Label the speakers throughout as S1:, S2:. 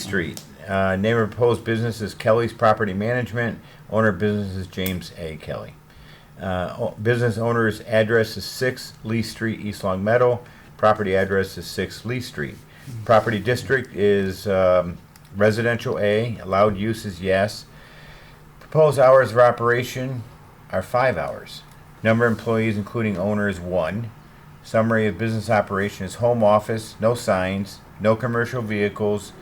S1: Street. Uh, name of proposed business is Kelly's Property Management. Owner of business is James A. Kelly. Uh, o- business owner's address is 6 Lee Street, East Long Meadow. Property address is 6 Lee Street. Property district is um, residential A. Allowed use is yes. Proposed hours of operation are five hours. Number of employees, including owner, is one. Summary of business operation is home office, no signs, no commercial vehicles,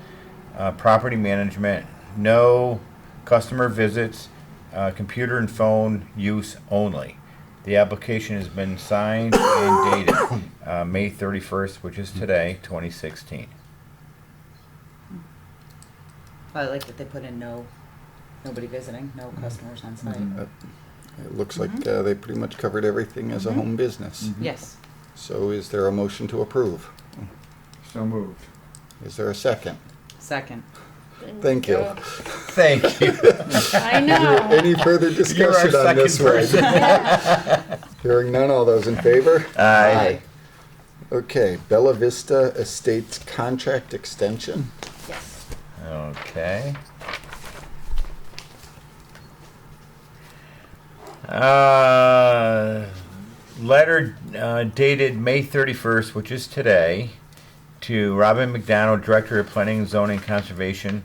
S1: uh, property management, no customer visits, uh, computer and phone use only. The application has been signed and dated uh, May 31st, which is today, 2016.
S2: I like that they put in no, nobody visiting, no
S3: Mm-hmm.
S2: customers on site.
S3: It looks like uh, they pretty much covered everything as a home business.
S2: Yes,
S3: So is there a motion to approve?
S4: So moved.
S3: Is there a second?
S2: second.
S3: Thank you.
S1: Thank you.
S5: I know.
S3: Any further
S1: You're our
S3: discussion on
S1: second
S3: this
S1: person.
S3: one? Hearing none, all those in favor?
S1: Aye.
S3: Okay, Bella Vista Estates contract extension.
S5: Yes.
S1: Okay. Uh, letter uh, dated May 31st, which is today, to Robin McDonald, Director of Planning and Zoning and Conservation,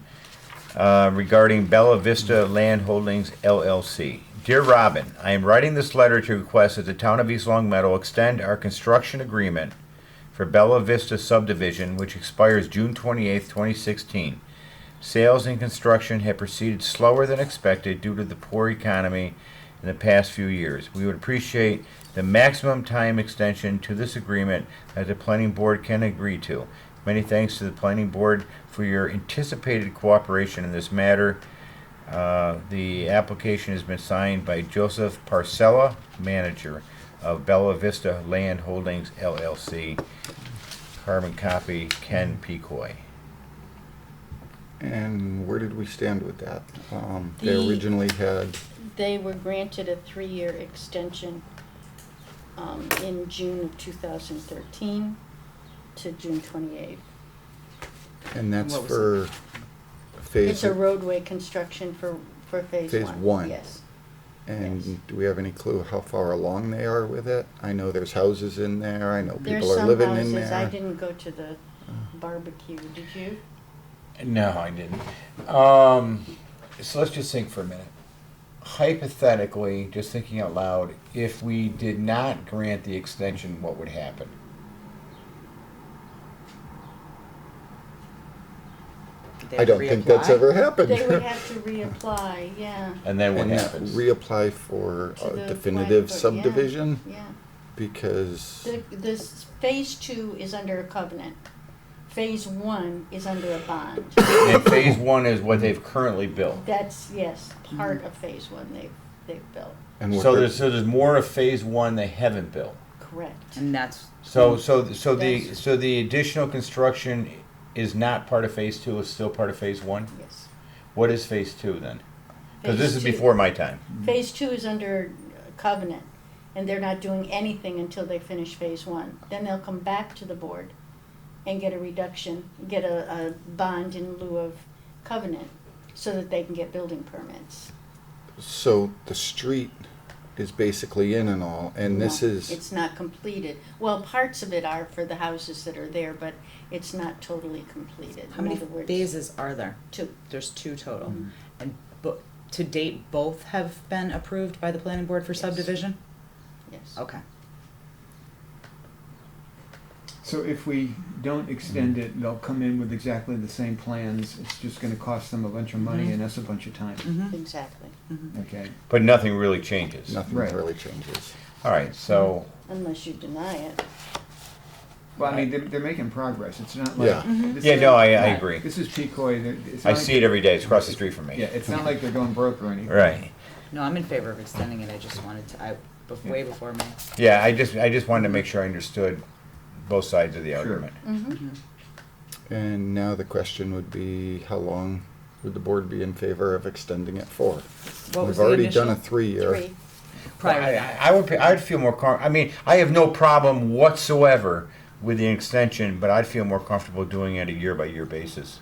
S1: uh, regarding Bella Vista Land Holdings LLC. Dear Robin, I am writing this letter to request that the Town of East Long Meadow extend our construction agreement for Bella Vista subdivision, which expires June 28, 2016. Sales and construction have proceeded slower than expected due to the poor economy in the past few years. We would appreciate the maximum time extension to this agreement that the planning board can agree to. Many thanks to the planning board for your anticipated cooperation in this matter. Uh, The application has been signed by Joseph Parcella, manager of Bella Vista Land Holdings LLC. Carbon copy, Ken Pecoy.
S3: And where did we stand with that? Um, They
S5: The-
S3: originally had,
S5: They were granted a three-year extension um, in June of 2013 to June 28th.
S3: and that's
S2: What was
S3: for
S5: It's
S3: phase,
S5: a roadway construction for, for Phase 1.
S3: Phase one.
S5: Yes. yes.
S3: and do we have any clue how far along they are with it? I know there's houses in there, I know
S5: There's
S3: people are
S5: some
S3: living in
S5: houses, I
S3: there.
S5: didn't go to the barbecue, did you?
S1: No, I didn't. Um, so let's just think for a minute. Hypothetically, just thinking out loud, if we did not grant the extension, what would happen?
S2: They
S3: I don't think that's
S2: reapply?
S3: ever happened.
S5: They would have to reapply, yeah,
S1: And then what
S3: And that
S1: happens?
S3: reapply for
S5: To
S3: a
S5: the
S3: definitive
S5: planning board, yeah.
S3: subdivision
S5: yeah.
S3: because,
S5: The, this, Phase 2 is under a covenant. Phase 1 is under a bond.
S1: and phase one is what they've currently built.
S5: That's, yes,
S3: Mm-hmm.
S5: part of Phase 1 they've, they've built,
S3: and what
S1: So
S3: they're-
S1: there's so there's more of phase one they haven't built.
S5: correct.
S2: And that's,
S1: So so so the
S5: Yes.
S1: so the additional construction is not part of phase two. It's still part of phase one.
S5: Yes.
S1: What is phase two then? Because this is
S5: Phase two-
S1: before my time.
S5: Phase two is under uh, covenant, and they're not doing anything until they finish phase one. Then they'll come back to the board and get a reduction, get a, a bond in lieu of covenant, so that they can get building permits.
S3: so the street is basically in and all, and this
S5: No,
S3: is,
S5: It's not completed. Well, parts of it are for the houses that are there, but it's not totally completed.
S2: how many
S5: In other words,
S2: phases are there?
S5: Two.
S2: There's two total.
S3: Mm-hmm.
S2: And bo- to date, both have been approved by the planning board for
S5: Yes.
S2: subdivision?
S5: Yes.
S2: Okay.
S4: So if we don't extend it, they'll come in with exactly the same plans. It's just gonna cost them a bunch of money and us a bunch of time,
S2: Mm-hmm.
S5: Exactly,
S4: okay?
S1: But nothing really changes.
S3: nothing
S4: Right.
S3: really changes.
S1: All right. So
S5: unless you deny it.
S4: Well, I mean, they're, they're making progress. It's not
S3: Yeah.
S4: like.
S2: Mm-hmm.
S4: this
S1: yeah,
S4: is-
S1: no, I, I
S2: Right.
S1: agree.
S4: This is Picoy. They're- it's
S1: I
S4: not
S1: see
S4: like-
S1: it every day. It's across the street from me.
S4: Yeah, it's not like they're going broke or anything.
S1: Right.
S2: No, I'm in favor of extending it, I just wanted to, I, bef- way before me.
S1: Yeah. I just I just wanted to make sure I understood both sides of the
S4: Sure.
S1: argument.
S3: And now the question would be, how long would the board be in favor of extending it for?
S2: What was
S3: We've
S2: the
S3: already done a
S2: initial?
S3: three-year.
S5: Three,
S2: Prior to
S1: I,
S2: that.
S1: I- I would. pe- I'd feel more. Com- I mean, I have no problem whatsoever with the extension, but I'd feel more comfortable doing it a year by year basis.